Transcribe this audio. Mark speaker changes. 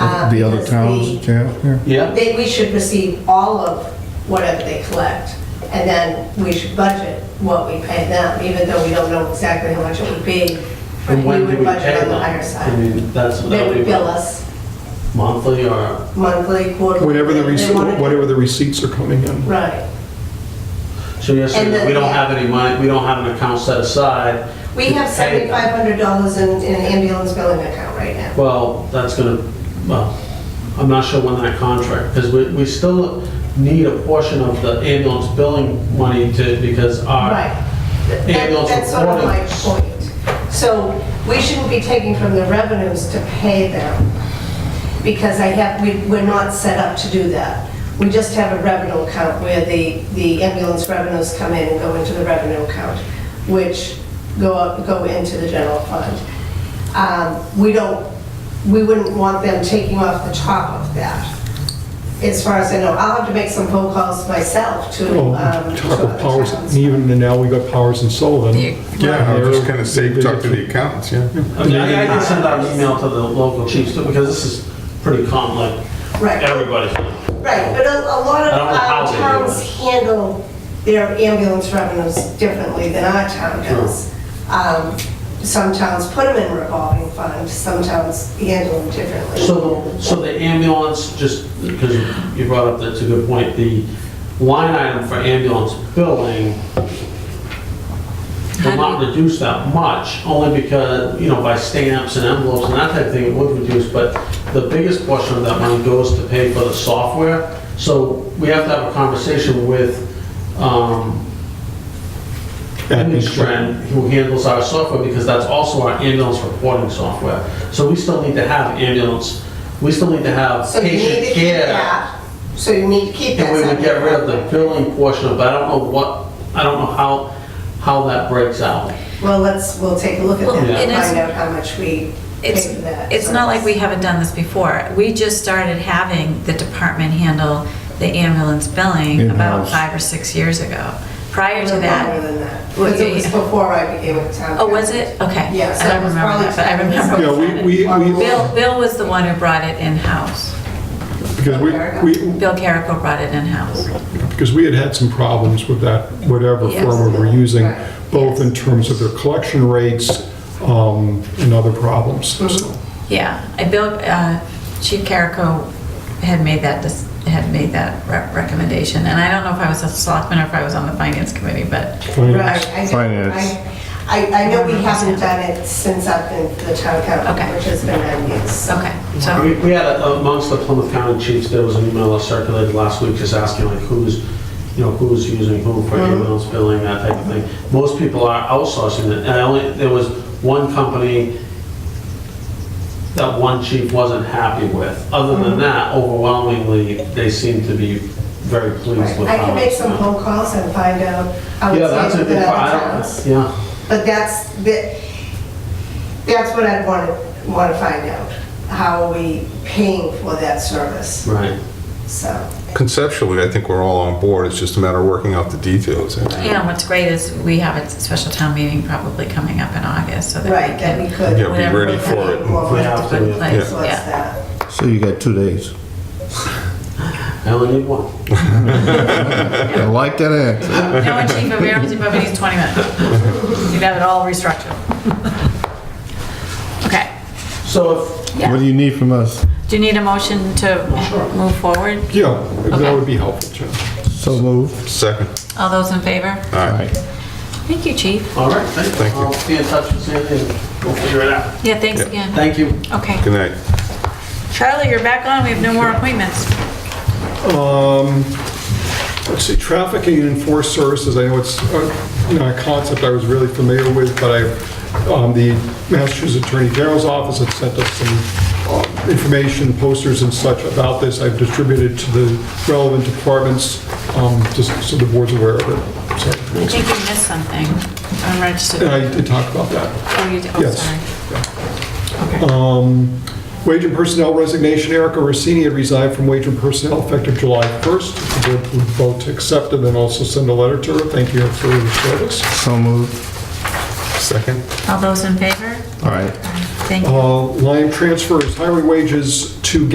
Speaker 1: uh,
Speaker 2: The other
Speaker 1: because
Speaker 2: towns,
Speaker 1: we-
Speaker 2: yeah, yeah.
Speaker 3: Yeah,
Speaker 1: They, we should receive all of whatever they collect, and then we should budget what we pay them, even though we don't know exactly how much it would be. But
Speaker 3: and when do
Speaker 1: would
Speaker 3: we
Speaker 1: budget
Speaker 3: pay
Speaker 1: on
Speaker 3: them?
Speaker 1: the higher
Speaker 3: I
Speaker 1: side.
Speaker 3: mean, that's what
Speaker 1: They
Speaker 3: that
Speaker 1: would
Speaker 3: would
Speaker 1: bill
Speaker 3: be,
Speaker 1: us
Speaker 3: monthly or,
Speaker 1: monthly, quarterly.
Speaker 4: Whatever the,
Speaker 1: they
Speaker 4: rece-
Speaker 1: wanted-
Speaker 4: whatever the receipts are coming in.
Speaker 1: Right.
Speaker 3: so you're saying
Speaker 1: And
Speaker 3: that
Speaker 1: the-
Speaker 3: we don't
Speaker 1: yeah.
Speaker 3: have any money, we don't have an account set aside?
Speaker 1: We
Speaker 3: to
Speaker 1: have
Speaker 3: pay them.
Speaker 1: seventy-five hundred dollars in, in an ambulance billing account right now.
Speaker 3: Well, that's gonna, well, I'm not sure when that contract, because we, we still need a portion of the ambulance billing money to, because our,
Speaker 1: Right. That-
Speaker 3: Ambulance
Speaker 1: That's sort of my
Speaker 3: reporters.
Speaker 1: point. So we shouldn't be taking from the revenues to pay them, because I have, we, we're not set up to do that. We just have a revenue account where the, the ambulance revenues come in and go into the revenue account, which go, up- go into the general fund. Um, We don't, we wouldn't want them taking off the top of that, as far as I know. I'll have to make some phone calls myself to.
Speaker 4: Oh,
Speaker 1: um, to
Speaker 4: talk
Speaker 1: other
Speaker 4: of powers,
Speaker 1: towns.
Speaker 4: and even now we got Powers and Sullivan.
Speaker 5: Yeah, I was just
Speaker 4: they're-
Speaker 5: gonna say, talk to the accountants, yeah.
Speaker 3: I mean, I I can send out an email to the local chiefs, too, because this is pretty common, like,
Speaker 1: Right.
Speaker 3: everybody's.
Speaker 1: Right, but a, a lot of
Speaker 3: I don't know how
Speaker 1: our
Speaker 3: they do
Speaker 1: towns
Speaker 3: it.
Speaker 1: handle their ambulance revenues differently than our town does. Um, Some towns put them in revolving fund, some towns handle them differently.
Speaker 3: So, so the ambulance, just because you brought up, that's a good point, the line item for ambulance billing will not reduce that much, only because, you know, by stamps and envelopes and that type of thing, it would reduce, but the biggest portion of that money goes to pay for the software. So we have to have a conversation with, um, Strand, who handles our software, because that's also our ambulance reporting software. So we still need to have ambulance, we still need to have
Speaker 1: So you need to
Speaker 3: patient
Speaker 1: keep
Speaker 3: care.
Speaker 1: that, so you need to keep that.
Speaker 3: And we would get rid of the
Speaker 1: separate.
Speaker 3: billing portion of it, I don't know what, I don't know how, how that breaks out.
Speaker 1: Well, let's, we'll take a look at
Speaker 6: Well,
Speaker 1: that
Speaker 3: and
Speaker 1: and
Speaker 6: it's-
Speaker 1: find out how much we pay
Speaker 6: It's,
Speaker 1: for that.
Speaker 6: it's not like we haven't done this before. We just started having the department handle the ambulance billing about
Speaker 2: In-house.
Speaker 6: five or six years ago. Prior to
Speaker 1: No longer
Speaker 6: that,
Speaker 1: than that,
Speaker 6: Well,
Speaker 1: because it was
Speaker 6: yeah.
Speaker 1: before I became a town.
Speaker 6: oh, was
Speaker 1: council.
Speaker 6: it? Okay.
Speaker 1: Yeah, so
Speaker 6: I
Speaker 1: it
Speaker 6: don't
Speaker 1: was
Speaker 6: remember that, but I
Speaker 1: probably-
Speaker 6: remember.
Speaker 4: Yeah, we, we, we-
Speaker 6: Bill, Bill was the one who brought it in-house.
Speaker 4: because we, we,
Speaker 6: Bill Carrico brought it in-house.
Speaker 4: because we had had some problems with that, whatever
Speaker 6: Yes.
Speaker 4: firm we were using,
Speaker 1: Right.
Speaker 4: both in terms of their collection rates um, and other problems. So,
Speaker 1: Mm-hmm.
Speaker 6: Yeah, I Bill, uh, Chief Carrico had made that, dis- had made that re- recommendation, and I don't know if I was a selectman or if I was on the finance committee, but
Speaker 4: finance.
Speaker 1: Right, I don't-
Speaker 2: Finance.
Speaker 1: I- I, I know we haven't done it since I've been to the town council,
Speaker 6: Okay.
Speaker 1: which has been nine years.
Speaker 6: okay, so,
Speaker 3: We we had, a- amongst the Plymouth County chiefs, there was an email that circulated last week just asking like who's, you know, who's using who for
Speaker 1: Mm-hmm.
Speaker 3: ambulance billing, that type of thing. Most people are outsourcing it, and I only, there was one company that one chief wasn't happy with. Other
Speaker 1: Mm-hmm.
Speaker 3: than that, overwhelmingly, they seem to be very pleased with
Speaker 1: I
Speaker 3: how
Speaker 1: can make
Speaker 3: it's
Speaker 1: some
Speaker 3: done.
Speaker 1: phone calls and find out how
Speaker 3: Yeah,
Speaker 1: it's
Speaker 3: that's a
Speaker 1: handled in
Speaker 3: good,
Speaker 1: other
Speaker 3: I
Speaker 1: towns.
Speaker 3: don't, yeah.
Speaker 1: But that's, that- that's what I'd want to, want to find out. How are we paying for that service?
Speaker 3: Right.
Speaker 1: So,
Speaker 5: Conceptually, I think we're all on board, it's just a matter of working out the details.
Speaker 6: you know, what's great is we have a special town meeting probably coming up in August, so that
Speaker 1: right,
Speaker 6: we
Speaker 1: that we
Speaker 6: can.
Speaker 1: could.
Speaker 5: Yeah, be ready for it.
Speaker 1: Well,
Speaker 3: Yeah,
Speaker 1: what's
Speaker 3: absolutely.
Speaker 6: Like, yeah.
Speaker 1: that?
Speaker 2: So you got two days.
Speaker 3: I only need one.
Speaker 2: I like that answer.
Speaker 6: No, and Chief of Arms, but we need 20 minutes. You'd have it all restructured. Okay,
Speaker 3: So if,
Speaker 2: What do you need from us?
Speaker 6: do you need a motion
Speaker 3: Sure.
Speaker 6: to move forward?
Speaker 4: Yeah, that would be helpful, Jim.
Speaker 2: So moved.
Speaker 5: Second,
Speaker 6: All those in favor?
Speaker 5: all right.
Speaker 6: Thank you, Chief.
Speaker 3: all right, thank
Speaker 5: Thank
Speaker 3: you.
Speaker 5: you.
Speaker 3: I'll be in touch with Sandy and we'll figure it out.
Speaker 6: Yeah, thanks
Speaker 5: Yeah.
Speaker 6: again.
Speaker 3: Thank you.
Speaker 6: Okay.
Speaker 5: Good night.
Speaker 6: Charlie, you're back on. We have no more appointments.
Speaker 4: Um, Let's see, trafficking and enforced services, I know it's, uh, you know, a concept I was really familiar with, but I, um, the Massachusetts Attorney General's Office had sent us some uh, information, posters and such about this. I've distributed to the relevant departments, um, just so the board's aware of it.
Speaker 6: I
Speaker 4: So,
Speaker 6: think you missed something. I'm registered.
Speaker 4: And I did talk about that.
Speaker 6: Oh, you did. Oh,
Speaker 4: Yes.
Speaker 6: sorry.
Speaker 4: Wage and personnel resignation, Erica Rossini had resigned from wage and personnel effective July 1st. The board would vote to accept and then also send a letter to her, thank you for your service.
Speaker 2: So moved.
Speaker 5: Second,
Speaker 6: All those in favor?
Speaker 2: All right.
Speaker 6: Thank you.
Speaker 4: Uh, Line transfers, highway wages to